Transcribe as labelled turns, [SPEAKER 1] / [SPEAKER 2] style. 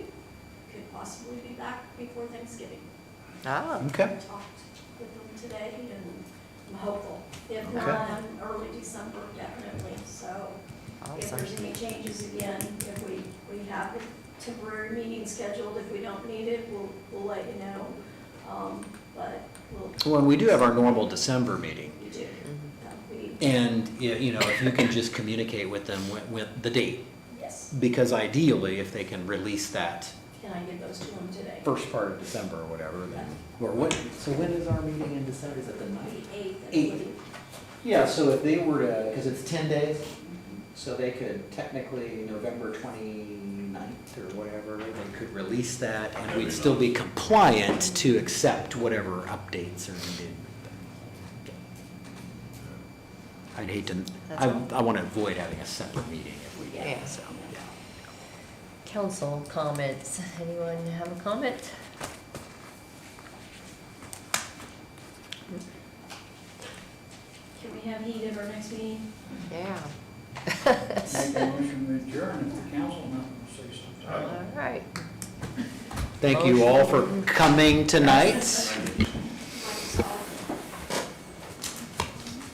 [SPEAKER 1] possibly be back before Thanksgiving.
[SPEAKER 2] Ah,
[SPEAKER 1] I
[SPEAKER 3] Okay,
[SPEAKER 1] talked with them today and I'm hopeful. If
[SPEAKER 3] Okay.
[SPEAKER 1] not, um, early December definitely, so if
[SPEAKER 2] awesome.
[SPEAKER 1] there's any changes again, if we, we have the temporary meeting scheduled, if we don't need it, we'll, we'll let you know. Um, but we'll,
[SPEAKER 3] well, we do have our normal December meeting,
[SPEAKER 1] we do, that we,
[SPEAKER 3] and, y- you know, if you can just communicate with them with, with the date,
[SPEAKER 1] yes,
[SPEAKER 3] because ideally, if they can release that
[SPEAKER 1] can I get those to them today?
[SPEAKER 3] first part of December or whatever, then, or what, so when is our meeting in December, is it the
[SPEAKER 1] The
[SPEAKER 3] ninth?
[SPEAKER 1] eighth, I
[SPEAKER 3] Eight.
[SPEAKER 1] believe.
[SPEAKER 3] Yeah, so if they were to, because it's ten days, so they could technically November 29th or whatever, they could release that, and we'd still be compliant to accept whatever updates are needed. I'd hate to, I, I want to avoid having a separate meeting if we
[SPEAKER 2] Yeah.
[SPEAKER 3] can, so, yeah.
[SPEAKER 2] Council comments. Anyone have a comment?
[SPEAKER 1] Can we have heat at our next meeting?
[SPEAKER 2] Yeah.
[SPEAKER 4] Make a motion to adjourn if the council members say something.
[SPEAKER 2] All right.
[SPEAKER 3] Thank you all for coming tonight.